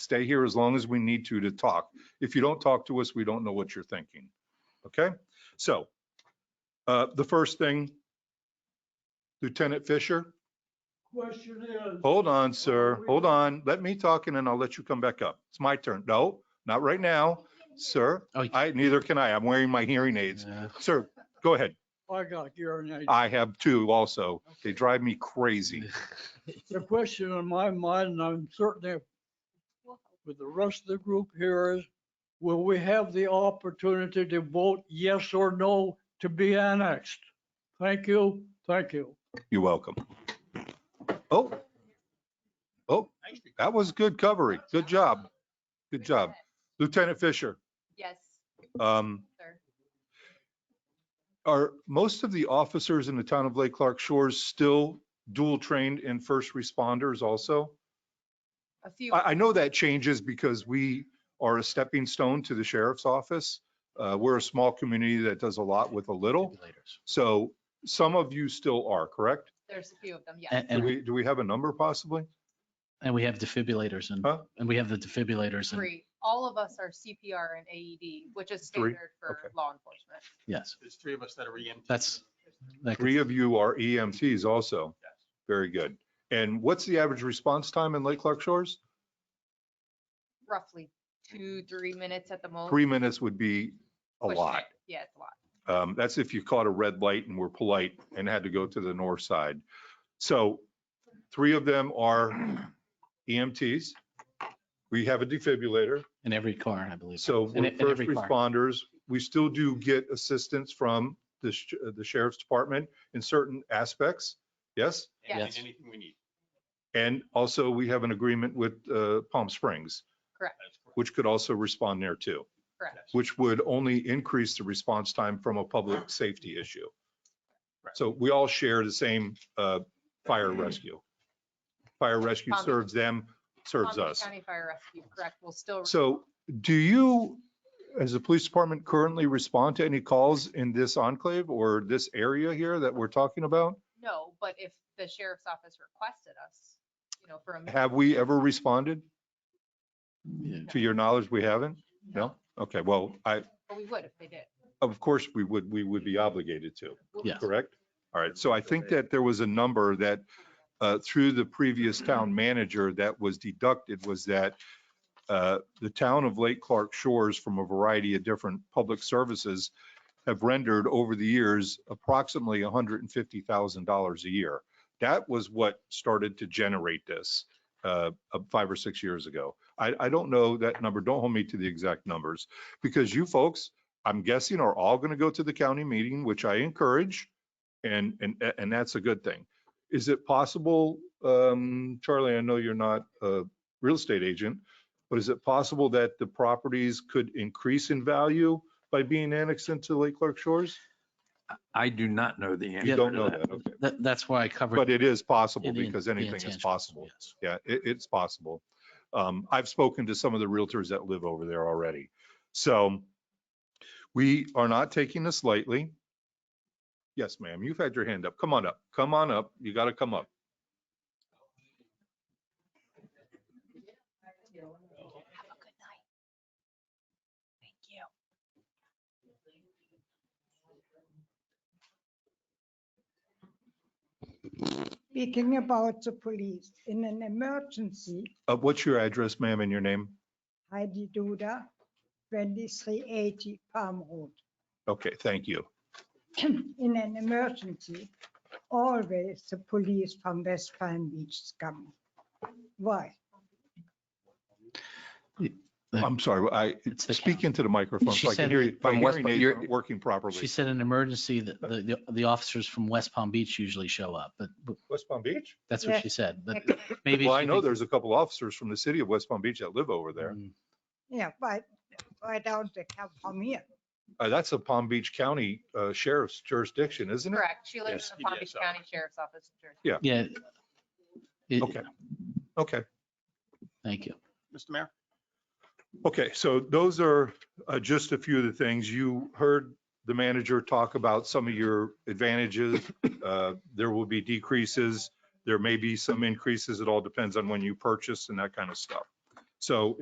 stay here as long as we need to to talk. If you don't talk to us, we don't know what you're thinking. Okay? So uh, the first thing, Lieutenant Fisher, Question is. hold on, sir. Hold on. Let me talk and then I'll let you come back up. It's my turn. No, not right now, sir. Oh, you- I, neither can I. I'm wearing my hearing aids. Yeah. Sir, go ahead. I got urinated. I have two also. They drive me crazy. The question in my mind, and I'm certain that with the rest of the group here is, will we have the opportunity to vote yes or no to be annexed? Thank you, thank you. You're welcome. Oh. Oh, that was good covering. Good job. Good job. Lieutenant Fisher, Yes, um, sir. are most of the officers in the town of Lake Clark Shores still dual trained in first responders also? A few, I, I know that changes because we are a stepping stone to the sheriff's office. Uh, we're a small community that does a lot with a little. Regulators. So some of you still are, correct? there's a few of them, yes. And, Do and, we, do we have a number possibly? and we have defibrillators and, Huh? and we have the defibrillators and, Three. All of us are CPR and AED, which is Three? standard for Okay. law enforcement. yes, There's three of us that are EMTs. that's, that could- Three of you are EMTs also. Very good. And what's the average response time in Lake Clark Shores? Roughly two, three minutes at the most. Three minutes would be a pushing lot. it. Yeah, it's a lot. Um, That's if you caught a red light and were polite and had to go to the north side. So three of them are EMTs. We have a defibrillator. in every car, I believe. So In- we're in first every car. responders. We still do get assistance from the sh- the sheriff's department in certain aspects. Yes? And Yes. Anything we need. And also, we have an agreement with uh, Palm Springs, That's correct. which could also respond there too, Yes. which would only increase the response time from a public safety issue. Correct. So we all share the same uh, fire rescue. Fire rescue Palm- serves them, serves Palm Beach us. County Fire Rescue, correct, will still. So do you, as a police department, currently respond to any calls in this enclave or this area here that we're talking about? No, but if the sheriff's office requested us, you know, for a. minute, Have we ever responded? Yeah. To your knowledge, we haven't? No? Okay, well, I, But we would if they did. Of course, we would, we would be obligated to, We'll- Yes. correct? All right, so I think that there was a number that uh, through the previous town manager that was deducted was that uh, the town of Lake Clark Shores from a variety of different public services have rendered over the years approximately $150,000 a year. That was what started to generate this uh, uh, five or six years ago. I, I don't know that number, don't hold me to the exact numbers, because you folks I'm guessing are all going to go to the county meeting, which I encourage, and, and, and that's a good thing. Is it possible, um, Charlie, I know you're not a real estate agent, but is it possible that the properties could increase in value by being annexed into Lake Clark Shores? I do not know the answer. You Yeah. don't to know that, okay. That, that's why I covered. But it is possible the in- because the anything is intangibles, possible. yes. Yeah, it, it's possible. Um, I've spoken to some of the realtors that live over there already. So we are not taking this lightly. Yes, ma'am, you've had your hand up. Come on up. Come on up. You got to come up. Have a good night. Thank you. speaking about the police in an emergency, Uh, what's your address, ma'am, and your name? Heidi Duda, 2380 Palm Road. Okay, thank you. In an emergency, always the police from West Palm Beach come. Why? I'm sorry, I, It's the county. speak into the microphone She so I can said hear that you. My from West hearing Palm- aids you're- aren't working She properly. said in an emergency, the, the, the officers from West Palm Beach usually show up, but but West Palm Beach? that's what Yeah. she said, but maybe. Well, I she know thinks- there's a couple officers from the city of West Palm Beach that live over there. Mm, Yeah, why, why don't they come from here? Uh, that's a Palm Beach County uh, Sheriff's jurisdiction, isn't it? Correct. She lives Yes, in the Palm Beach PDSO. County Sheriff's Office. in Jersey. Yeah. It- Okay. Okay. Thank you. Mr. Mayor? Okay, so those are uh, just a few of the things. You heard the manager talk about some of your advantages. Uh, There will be decreases. There may be some increases. It all depends on when you purchase and that kind of stuff. So